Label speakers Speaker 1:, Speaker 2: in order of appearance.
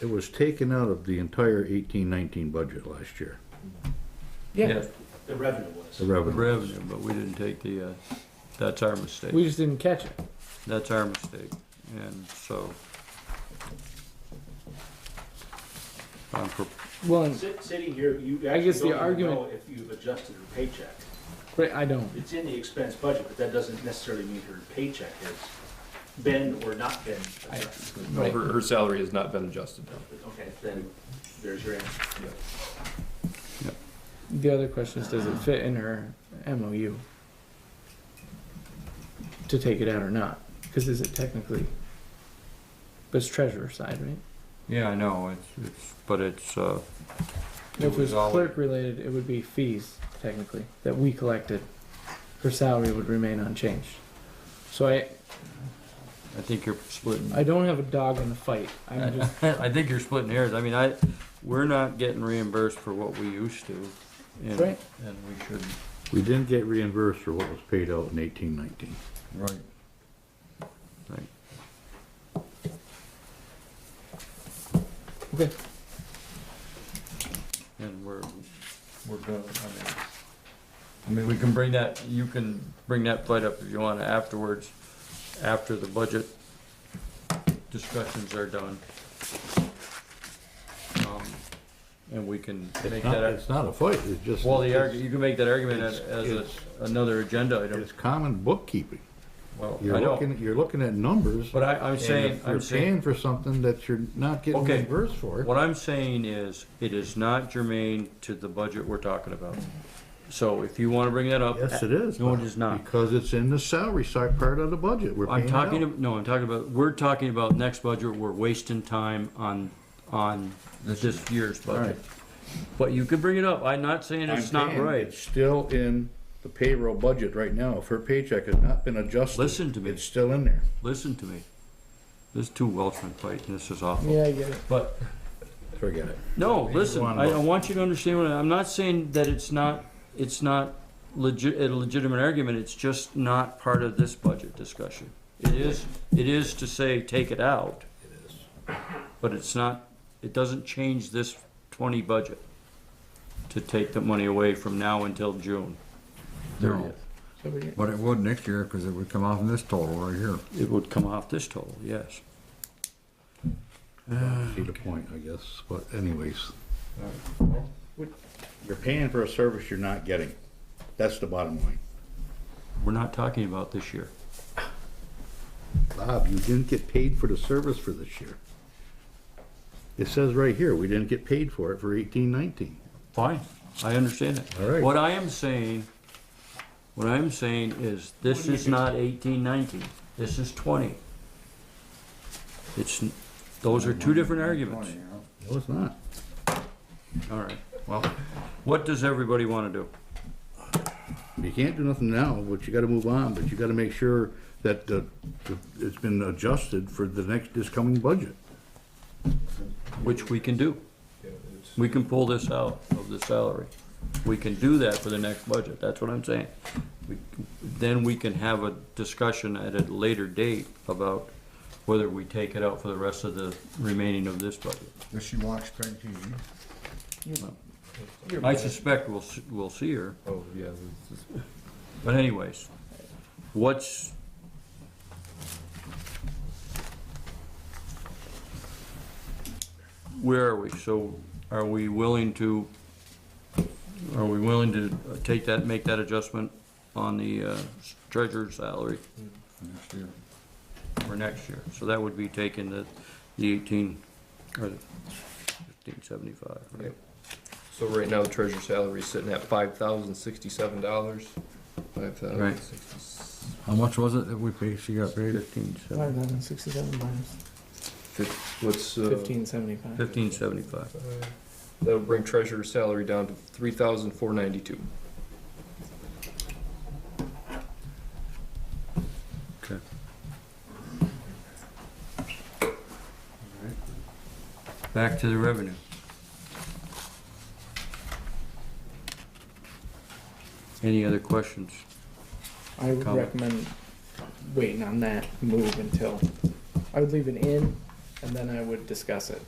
Speaker 1: It was taken out of the entire eighteen nineteen budget last year,
Speaker 2: Yeah,
Speaker 3: The revenue
Speaker 1: the
Speaker 3: was.
Speaker 1: revenue.
Speaker 4: revenue, but we didn't take the, uh, that's our
Speaker 2: we
Speaker 4: mistake.
Speaker 2: just didn't catch it.
Speaker 4: That's our mistake, and so. I'm for,
Speaker 2: Well, and-
Speaker 3: Sit- Sitting here, you
Speaker 2: I
Speaker 3: actually
Speaker 2: guess the
Speaker 3: don't even
Speaker 2: argument-
Speaker 3: know if you've adjusted her paycheck.
Speaker 2: but I don't.
Speaker 3: It's in the expense budget, but that doesn't necessarily mean her paycheck has been or not been adjusted.
Speaker 5: No, her, her salary has not been adjusted.
Speaker 3: Okay, then there's your answer.
Speaker 2: The other question is, does it fit in her MOU? To take it out or not? Because is it technically? But it's treasurer side, right?
Speaker 4: yeah, I know, it's, it's, but it's, uh,
Speaker 2: If it was
Speaker 4: It was all-
Speaker 2: clerk related, it would be fees technically that we collected. Her salary would remain unchanged. So I,
Speaker 4: I think you're splitting.
Speaker 2: I don't have a dog in the fight. I'm just,
Speaker 4: I think you're splitting hairs. I mean, I, we're not getting reimbursed for what we used to. and-
Speaker 2: Right.
Speaker 4: And we shouldn't.
Speaker 1: We didn't get reimbursed for what was paid out in eighteen nineteen.
Speaker 4: Right. Right.
Speaker 2: okay,
Speaker 4: And we're, we're gonna, I mean, I mean, we can bring that, you can bring that fight up if you want afterwards, after the budget discussions are done. Um, And we can make
Speaker 1: Not-
Speaker 4: that,
Speaker 1: It's not a fight, it's just.
Speaker 4: well, the
Speaker 1: it's-
Speaker 4: argument, you can make that argument as, as a-
Speaker 1: It's-
Speaker 4: another agenda item.
Speaker 1: It's common bookkeeping.
Speaker 4: Well, I
Speaker 1: You're
Speaker 4: know.
Speaker 1: looking, you're looking at numbers.
Speaker 4: But I, I'm
Speaker 1: and
Speaker 4: saying,
Speaker 1: if
Speaker 4: I'm
Speaker 1: You're paying
Speaker 4: saying,
Speaker 1: for something that you're not getting
Speaker 4: Okay.
Speaker 1: reimbursed for.
Speaker 4: what I'm saying is, it is not germane to the budget we're talking about. So if you wanna bring that up.
Speaker 1: Yes, it is.
Speaker 4: No, it
Speaker 1: Bob,
Speaker 4: is not.
Speaker 1: Because it's in the salary side part of the budget, we're paying
Speaker 4: I'm
Speaker 1: it
Speaker 4: talking,
Speaker 1: out.
Speaker 4: ab- no, I'm talking about, we're talking about next budget, we're wasting time on, on this year's budget. But you could bring it up, I'm not saying
Speaker 1: I'm
Speaker 4: it's not
Speaker 1: saying
Speaker 4: right.
Speaker 1: It's still in the payroll budget right now. If her paycheck has not been adjusted.
Speaker 4: Listen to me.
Speaker 1: It's still in there.
Speaker 4: Listen to me. There's two Welshmen fighting, this is awful.
Speaker 2: yeah, I get it.
Speaker 4: But,
Speaker 1: Forget it.
Speaker 4: no,
Speaker 1: Maybe
Speaker 4: listen,
Speaker 1: one
Speaker 4: I, I
Speaker 1: vote.
Speaker 4: want you to understand what, I- I'm not saying that it's not, it's not legit, a legitimate argument, it's just not part of this budget discussion. It is, it is to say, take it out. But it's not, it doesn't change this twenty budget to take the money away from now until June.
Speaker 6: No,
Speaker 2: So we get-
Speaker 6: but it would next year, cause it would come off in this total right here.
Speaker 4: It would come off this total, yes.
Speaker 1: See the point, I guess, but anyways. You're paying for a service you're not getting. That's the bottom line.
Speaker 4: We're not talking about this year.
Speaker 1: Bob, you didn't get paid for the service for this year. It says right here, we didn't get paid for it for eighteen nineteen.
Speaker 4: Fine, I understand that.
Speaker 1: All right.
Speaker 4: What I am saying, what I'm saying is, this is not eighteen nineteen, this is twenty. It's, n- those are two different arguments.
Speaker 1: No, it's not.
Speaker 4: All right, well, what does everybody wanna do?
Speaker 1: You can't do nothing now, but you gotta move on, but you gotta make sure that the, the- it's been adjusted for the next, this coming budget.
Speaker 4: which we can do. We can pull this out of the salary. We can do that for the next budget, that's what I'm saying. We- Then we can have a discussion at a later date about whether we take it out for the rest of the remaining of this budget.
Speaker 6: Does she watch Peg TV?
Speaker 4: I suspect we'll, s- we'll see her,
Speaker 5: Oh, yeah.
Speaker 4: but anyways, what's, where are we? So are we willing to, are we willing to uh, take that, make that adjustment on the uh, treasurer's salary
Speaker 6: Next year.
Speaker 4: for next year? So that would be taking the, the eighteen, or fifteen seventy-five, right?
Speaker 5: So right now, the treasurer's salary is sitting at five thousand sixty-seven dollars. Five thousand
Speaker 4: Right.
Speaker 5: sixty,
Speaker 6: How much was it that we paid, she got paid?
Speaker 4: Fifteen
Speaker 2: Five
Speaker 4: seventy,
Speaker 2: thousand sixty-seven minus
Speaker 5: what's, uh,
Speaker 2: fifteen seventy-five.
Speaker 4: fifteen seventy-five.
Speaker 5: that'll bring treasurer's salary down to three thousand four ninety-two.
Speaker 4: Okay. Back to the revenue. Any other questions?
Speaker 2: I would
Speaker 4: Comment.
Speaker 2: recommend waiting on that move until, I would leave it in and then I would discuss it.